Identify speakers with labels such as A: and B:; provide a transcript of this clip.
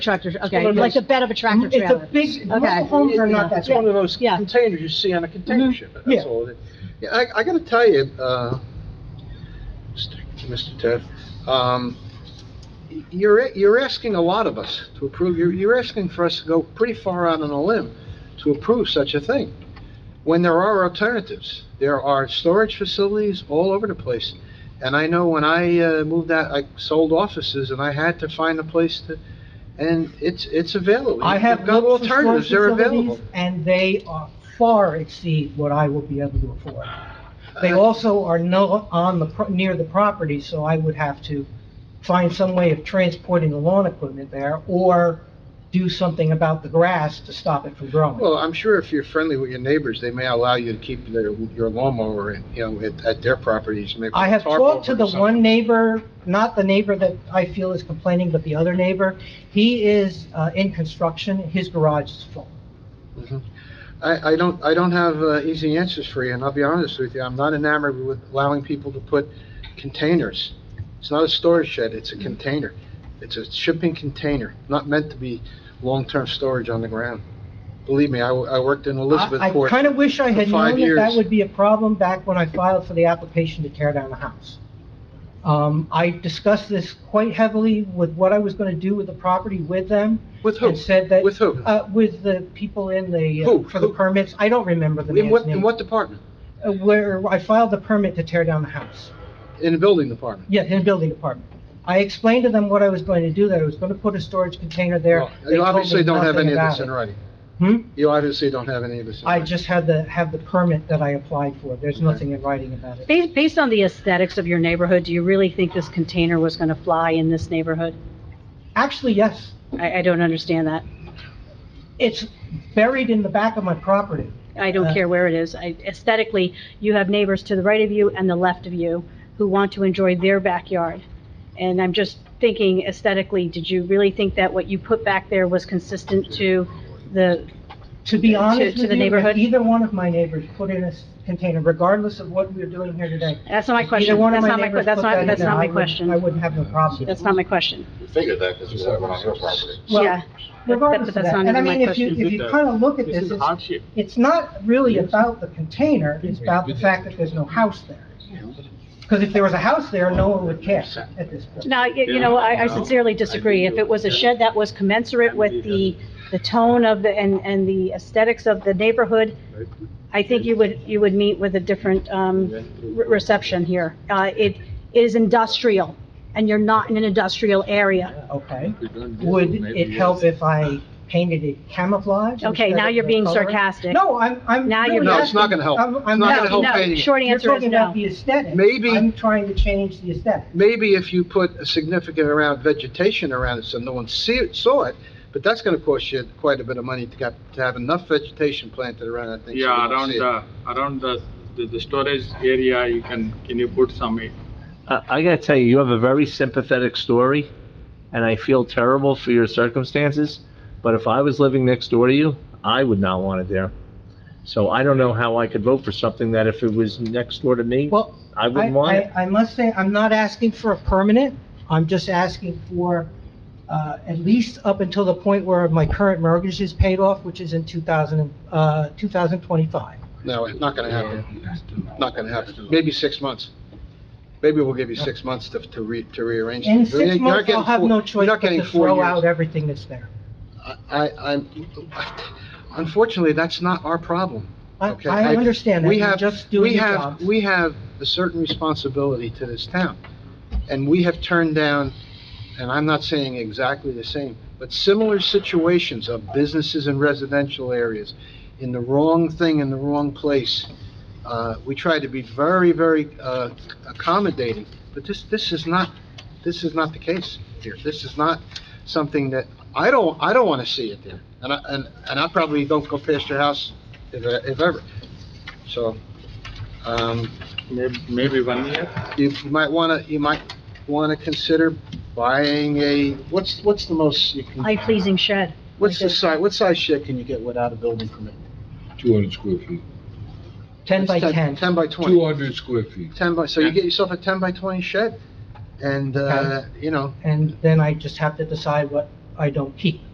A: Tractor,
B: one
A: okay,
B: of
A: like the
B: those-
A: bed of Mm, a tractor
B: It's a
A: trailer.
B: big,
A: Okay.
B: mobile homes are not that
C: It's one
B: small.
C: of those
A: Yeah.
C: containers you see on a container
B: Mhm.
C: ship,
B: Yeah.
C: that's all it is. Yeah, I, I gotta tell you, uh, Mr. Ted, um, you're, you're asking a lot of us to approve, you're, you're asking for us to go pretty far out on a limb to approve such a thing, when there are alternatives. There are storage facilities all over the place. And I know when I uh, moved out, I sold offices and I had to find a place to, and it's, it's available.
B: I have
C: You've got
B: looked for storage
C: alternatives, they're available.
B: facilities, and they are far exceed what I will be able to afford. They also are no, on the, pro- near the property, so I would have to find some way of transporting the lawn equipment there, or do something about the grass to stop it from growing.
C: Well, I'm sure if you're friendly with your neighbors, they may allow you to keep their, your lawnmower in, you know, at, at their properties, maybe.
B: I have
C: tarp
B: talked to
C: over
B: the
C: it or
B: one
C: something.
B: neighbor, not the neighbor that I feel is complaining, but the other neighbor. He is, uh, in construction, his garage is full.
C: Mhm. I, I don't, I don't have, uh, easy answers for you, and I'll be honest with you, I'm not enamored with allowing people to put containers. It's not a storage shed, it's a
B: Mm.
C: container. It's a shipping container, not meant to be long-term storage on the ground. Believe me, I, w- I worked in
B: I
C: Elizabethport.
B: kind of wish I had
C: for five
B: known that that
C: years.
B: would be a problem back when I filed for the application to tear down the house. Um, I discussed this quite heavily with what I was going to do with the property with them.
C: With who?
B: And said that.
C: With who?
B: Uh, with the people in the, uh,
C: Who?
B: for the
C: Who?
B: permits. I don't remember the
C: In
B: man's
C: what, in
B: name.
C: what department?
B: Uh, Where I filed the permit to tear down the house.
C: In the building department?
B: Yeah, in the building department. I explained to them what I was going to do, that I was going to put a storage container there.
C: Well,
B: They
C: You
B: told me
C: obviously don't have
B: nothing
C: any of
B: about
C: this in
B: it.
C: writing.
B: Hmm?
C: You obviously don't have any of this. in
B: I
C: writing.
B: just had the, have the permit that I applied for. There's
C: Okay.
B: nothing in writing about it.
A: Based, based on the aesthetics of your neighborhood, do you really think this container was gonna fly in this neighborhood?
B: Actually, yes.
A: I, I don't understand that.
B: It's buried in the back of my property.
A: I don't
B: Uh,
A: care where it is. I- Aesthetically, you have neighbors to the right of you and the left of you who want to enjoy their backyard. And I'm just thinking aesthetically, did you really think that what you put back there was consistent to the,
B: To be
A: To-
B: honest
A: to
B: with
A: the
B: you, if
A: neighborhood?
B: either one of my neighbors put in a s- container, regardless of what we're doing here today.
A: that's not my
B: if
A: question.
B: Either one
A: That's
B: of my
A: not my, que-
B: neighbors
A: that's
B: put that
A: not,
B: in
A: that's
B: there,
A: not
B: I
A: my
B: would, I
A: question.
B: wouldn't have no problem.
A: That's not my question.
D: You figured that because you said it on your property.
B: Well,
A: Yeah. But-
B: Regardless
A: but
B: of
A: that's
B: that,
A: not
B: and I
A: even my
B: mean, if you,
A: question.
B: if you kind of look at this, it's,
D: hardship.
B: it's not really about the container, it's about the fact that there's no house there. Because if there was a house there, no one would care at this point.
A: No, you you know, I I sincerely disagree. If it was a shed that was commensurate with the, the tone of the, and, and the aesthetics of the neighborhood, I think you would, you would meet with a different um, re- reception here. Uh, It is industrial, and you're not in an industrial area.
B: Okay. Would it help if I painted it camouflage?
A: Okay,
B: instead
A: now
B: of
A: you're
B: the
A: being
B: color?
A: sarcastic.
B: No, I'm, I'm.
A: Now you're
B: really
A: being-
C: No, it's not gonna help.
B: asking- I'm-
C: It's
B: I'm
C: not gonna help
A: No,
C: painting
A: no,
C: it.
A: short
B: You're
A: answer is
B: talking about
A: no.
B: the aesthetic.
C: Maybe-
B: I'm trying to change the aesthetic.
C: Maybe if you put a significant amount of vegetation around it so no one see it, saw it, but that's gonna cost you quite a bit of money to get, to have enough vegetation planted around that thing. so
E: Yeah, uh,
C: you don't
E: around
C: see it.
E: the, around the, the, the storage area, you can, can you put some, eh,
F: I I gotta tell you, you have a very sympathetic story, and I feel terrible for your circumstances, but if I was living next door to you, I would not want it there. So I don't know how I could vote for something that if it was next door to me,
B: Well,
F: I
B: I,
F: wouldn't want it.
B: I, I must say, I'm not asking for a permanent, I'm just asking for, uh, at least up until the point where my current mortgage is paid off, which is in two thousand, uh, two thousand twenty-five.
C: No, it's not gonna happen. Not gonna happen. Maybe six months. Maybe we'll give you six months to, to re, to rearrange.
B: In
C: things. You're
B: six
C: not
B: months, I'll
C: getting
B: have
C: four-
B: no
C: you're
B: choice
C: not
B: but
C: getting
B: to
C: four
B: throw
C: years.
B: out everything that's there.
C: I, I'm, unfortunately, that's not our problem.
B: I,
C: Okay,
B: I understand that,
C: we
B: you're
C: have-
B: just doing
C: we
B: your
C: have-
B: job.
C: We have a certain responsibility to this town, and we have turned down, and I'm not saying exactly the same, but similar situations of businesses in residential areas, in the wrong thing, in the wrong place. Uh, we try to be very, very, uh, accommodating, but this, this is not, this is not the case here. This is not something that, I don't, I don't wanna see it there, and I, and, and I probably don't go past your house if, if ever. So, um,
E: maybe, maybe one year?
C: you you might wanna, you might wanna consider buying a, what's, what's the most you can,
A: Eye-pleasing shed.
C: what's the
A: like a-
C: size, what size shed can you get without a building permit?
G: Two hundred square feet,
B: Ten
C: It's
B: by ten.
C: Ten by
G: two
C: twenty.
G: hundred square feet.
C: Ten by, so you get yourself a ten by twenty shed, and, uh, you know,
B: and then I just have to decide what I don't keep.